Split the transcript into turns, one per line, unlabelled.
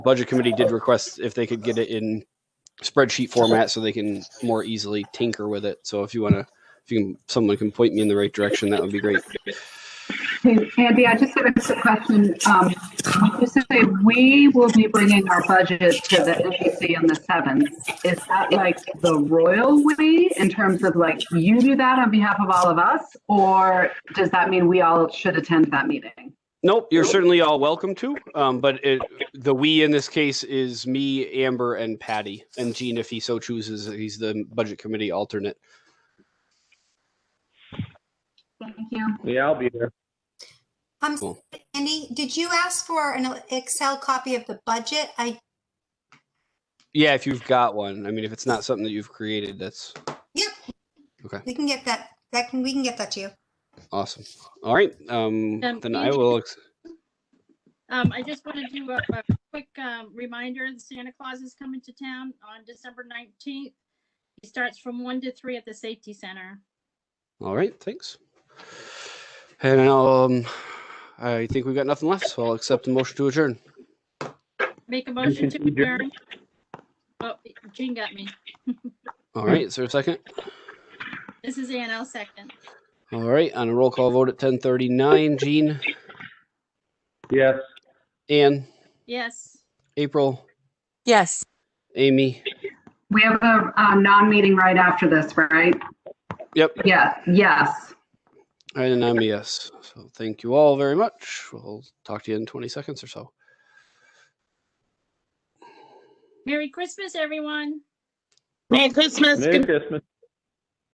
Budget committee did request if they could get it in spreadsheet format so they can more easily tinker with it. So if you want to, if you can, someone can point me in the right direction, that would be great.
Hey, Andy, I just have a quick question. Um, You said we will be bringing our budget to the NBC on the 7th. Is that like the royal way in terms of like you do that on behalf of all of us? Or does that mean we all should attend that meeting?
Nope, you're certainly all welcome to. Um, but it, the we in this case is me, Amber, and Patty, and Gene, if he so chooses, he's the budget committee alternate.
Thank you.
Yeah, I'll be there.
Um,
Cool.
Andy, did you ask for an Excel copy of the budget? I,
Yeah, if you've got one. I mean, if it's not something that you've created, that's
yep.
Okay.
We can get that, that can, we can get that to you.
awesome. All right, um,
Um,
then I
Andy-
will. ex-
Um, I just want to do a, a quick, um, reminder that Santa Claus is coming to town on December nineteenth. He starts from one to three at the safety center.
All right, thanks. And I'll, um, I think we've got nothing left, so I'll accept the motion to adjourn.
Make a motion to
to adjourn.
adjourn. Oh, Jean got me.
All right, is there a second?
This is Ann, I'll second.
All right, on a roll call vote at ten thirty-nine, Gene,
Yes.
Ann,
Yes.
April,
Yes.
Amy.
We have a um, non-meeting right after this, right?
Yep,
Yeah, yes.
and I'm a yes. So thank you all very much. We'll talk to you in twenty seconds or so.
Merry Christmas, everyone.
Merry Christmas.
Merry Christmas.